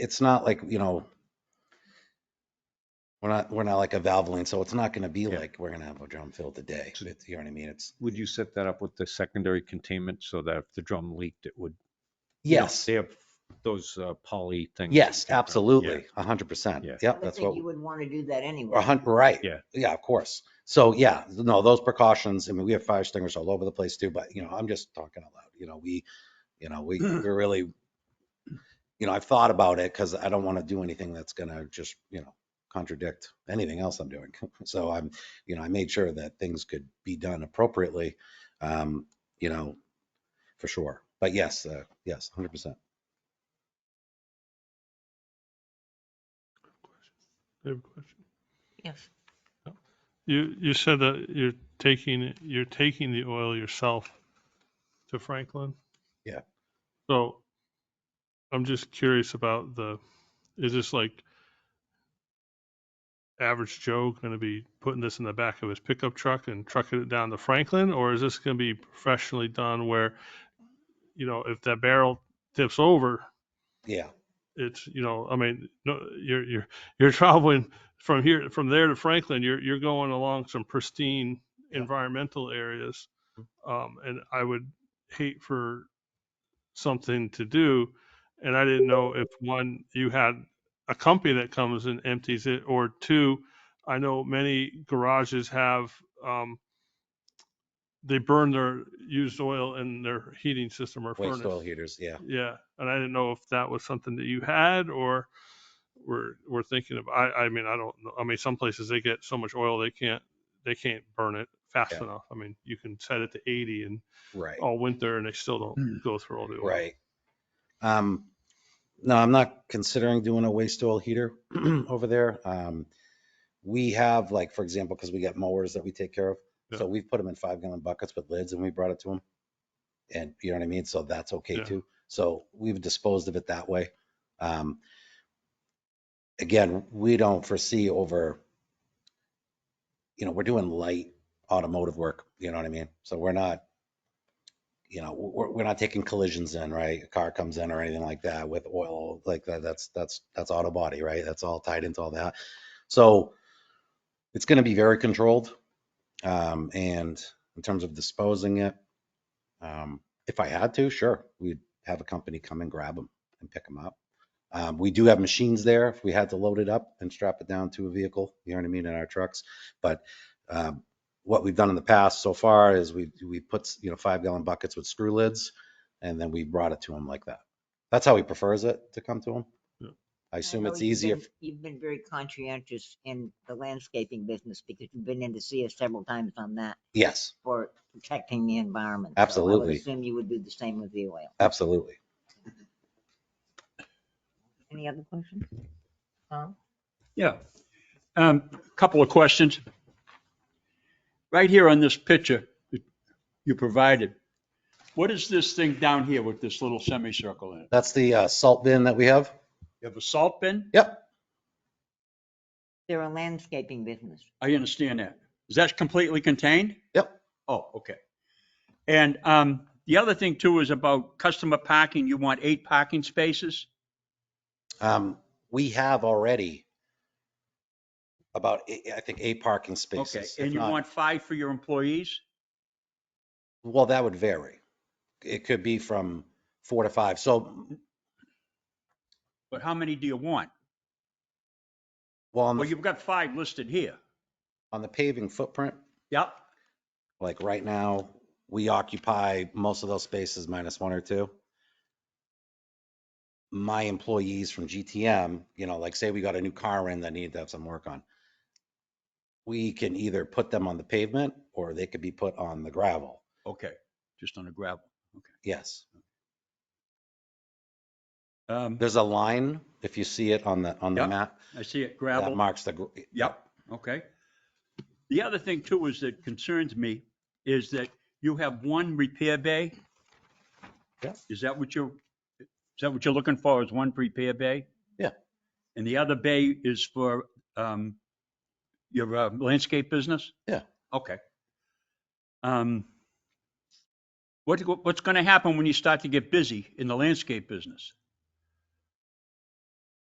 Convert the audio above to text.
it's not like, you know, we're not, we're not like a Valvoline, so it's not gonna be Yeah. like, we're gonna have a drum filled today. So- It's- You know what I mean? It's, Would you set that up with the secondary containment so that if the drum leaked, it would? you know, yes, They have those uh, poly things. yes, Yeah. absolutely, a hundred percent. Yeah. Yep, I would that's what. think you wouldn't want to do that anyway. A hundred, right. Yeah. Yeah, of course. So yeah, no, those precautions, I mean, we have fire extinguishers all over the place too, but you know, I'm just talking out loud, you know, we, you know, we, we're really, you know, I've thought about it because I don't want to do anything that's gonna just, you know, contradict anything else I'm doing. So I'm, you know, I made sure that things could be done appropriately, um, you know, for sure. But yes, uh, yes, hundred percent. I have a question. Yes. You, you said that you're taking, you're taking the oil yourself to Franklin? Yeah. So I'm just curious about the, is this like average Joe going to be putting this in the back of his pickup truck and trucking it down to Franklin? Or is this going to be professionally done where, you know, if that barrel tips over, Yeah, it's you know i mean no you're you're you're traveling from here from there to franklin you're you're going along some pristine Yeah. Mm-hmm. environmental areas um and i would hate for something to do and i didn't know if one you had a company that comes and empties it or two i know many garages have um they burn their used oil in their heating system or waste furnace oil heaters, yeah. yeah, and I didn't know if that was something that you had or were were thinking of. I I mean I don't know. I mean some places they get so much oil they can't they can't burn it fast Yeah. enough. I mean you can set it to 80 and Right. all winter and they still don't go through all the oil. Hmm. Right. Um, no, I'm not considering doing a waste oil heater over there. Um, we have like, for example, because we got mowers that we take care of. Yeah. So we've put them in five gallon buckets with lids and we brought it to them. And you know what I mean? So that's okay Yeah. too. So we've disposed of it that way. Um, again, we don't foresee over, you know, we're doing light automotive work, you know what I mean? So we're not, you know, we're, we're not taking collisions in, right? A car comes in or anything like that with oil, like that, that's, that's, that's auto body, right? That's all tied into all that. So it's going to be very controlled. Um, and in terms of disposing it, um, if I had to, sure, we'd have a company come and grab them and pick them up. Um, we do have machines there if we had to load it up and strap it down to a vehicle, you know what I mean, in our trucks. But, um, what we've done in the past so far is we, we put, you know, five gallon buckets with screw lids and then we brought it to him like that. That's how he prefers it to come to Yeah. him. I assume know it's you've easier. been- You've been very conscientious in the landscaping business because you've been in to see us several times on that Yes, for protecting the environment. So I Absolutely. would assume you would do the same with the oil. absolutely. Any other questions? Tom? Yeah. Um, Couple of questions. Right here on this picture that you provided, what is this thing down here with this little semicircle in it? That's the uh, salt bin that we have. You have a salt bin? Yep, They're a landscaping business. I understand that. Is that completely contained? yep. Oh, okay. And um, the other thing too is about customer parking. You want eight parking spaces? Um, we have already about, eight- I think, eight parking Okay. spaces. if And you not- want five for your employees? Well, that would vary. It could be from four to five. So, But how many do you want? well, on Well, the, you've got five listed here. on the paving footprint, Yep. like right now, we occupy most of those spaces minus one or two. My employees from GTM, you know, like say we got a new car in that needed to have some work on. We can either put them on the pavement or they could be put on the gravel. Okay. Just on the gravel. Yes. Um, There's a line, if you see it on the, on the Yep. map, I see it, that gravel. marks the, gr- Yep, okay. The other thing too is that concerns me is that you have one repair bay. Yeah. Is that what you're, is that what you're looking for is one repair bay? Yeah. And the other bay is for um, your uh, landscape business? Yeah. Okay. Um, What, what's going to happen when you start to get busy in the landscape business?